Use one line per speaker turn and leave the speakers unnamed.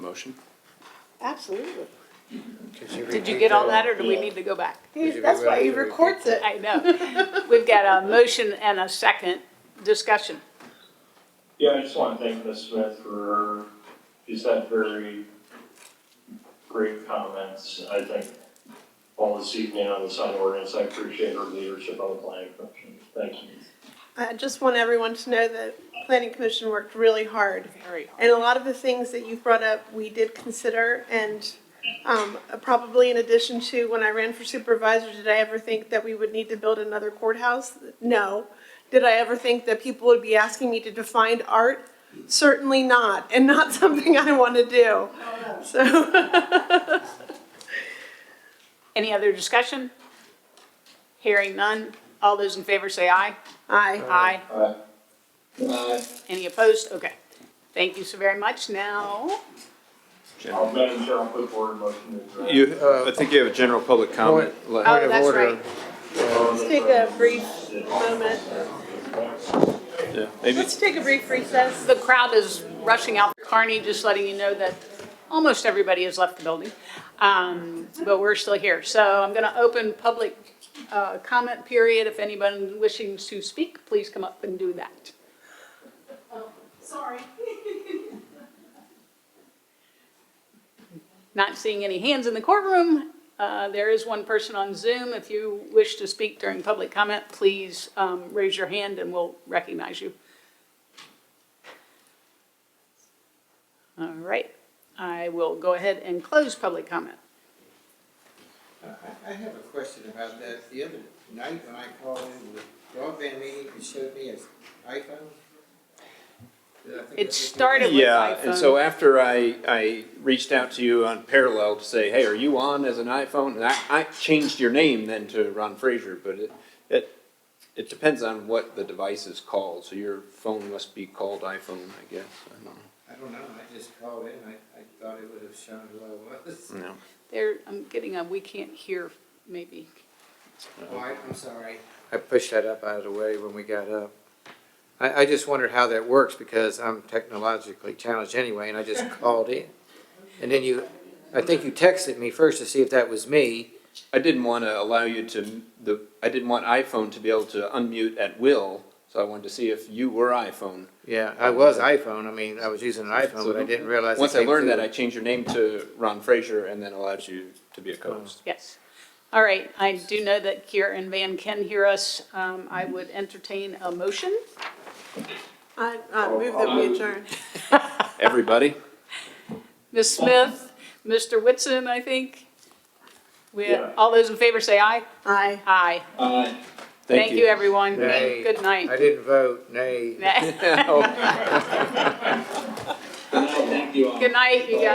motion?
Absolutely.
Did you get all that, or do we need to go back?
He-
you
That's why he
realize we
records it.
I know. We've got a motion and a second discussion.
Yeah, I just want to thank Ms. Smith for, she's had very great comments, I think, all this evening on the sign ordinance. I appreciate her leadership on the planning commission. Thank you.
I just want everyone to know that planning commission worked really hard.
Very hard.
And a lot of the things that you brought up, we did consider and um, probably in addition to when I ran for supervisor, did I ever think that we would need to build another courthouse? No. Did I ever think that people would be asking me to define art? Certainly not, and not something I want to do. So,
Any other discussion? Hearing none. All those in favor say aye.
aye.
Aye.
Aye.
Any opposed? Okay. Thank you so very much. Now,
I'll, Madam Chair, I'll put forward a motion to adjourn.
You, I think you have a general public comment.
oh, that's right.
Let's take a brief moment.
Yeah, Maybe,
Let's take a brief recess.
The crowd is rushing out. Carney, just letting you know that almost everybody has left the building, um, but we're still here. So I'm going to open public uh, comment period. If anyone wishing to speak, please come up and do that.
Sorry.
Not seeing any hands in the courtroom. Uh, There is one person on Zoom. If you wish to speak during public comment, please um, raise your hand and we'll recognize you. All right, I will go ahead and close public comment.
I, I have a question about that. The other night when I called in, the broadband meeting, you showed me as iPhone. Did I
It
think that's what you-
started with
yeah, and so
iPhone.
after I, I reached out to you on Parallel to say, hey, are you on as an iPhone? And I, I changed your name then to Ron Fraser, but it, it, it depends on what the device is called, so your phone must be called iPhone, I guess, I don't
I don't know, I just called in, I, I thought it would have shown who I was.
know.
There, I'm getting a, we can't hear, maybe.
Oh, I, I'm sorry. I pushed that up out of the way when we got up. I, I just wondered how that works because I'm technologically challenged anyway and I just called in. And then you, I think you texted me first to see if that was me.
I didn't want to allow you to, the, I didn't want iPhone to be able to unmute at will, so I wanted to see if you were iPhone.
Yeah, I was iPhone, I mean, I was using an iPhone, but I didn't realize. it
Once I
came
learned that,
through.
I changed your name to Ron Fraser and then allowed you to be a
Oh.
co-host.
Yes. All right, I do know that Kira and Van can hear us. Um, I would entertain a motion.
I, I move that we adjourn.
Everybody?
Ms. Smith, Mr. Whitson, I think. We,
Yeah.
all those in favor say aye.
Aye.
Aye. Thank you, everyone.
Nay.
Good night.
I didn't vote, nay.
Oh.
Good night, you guys.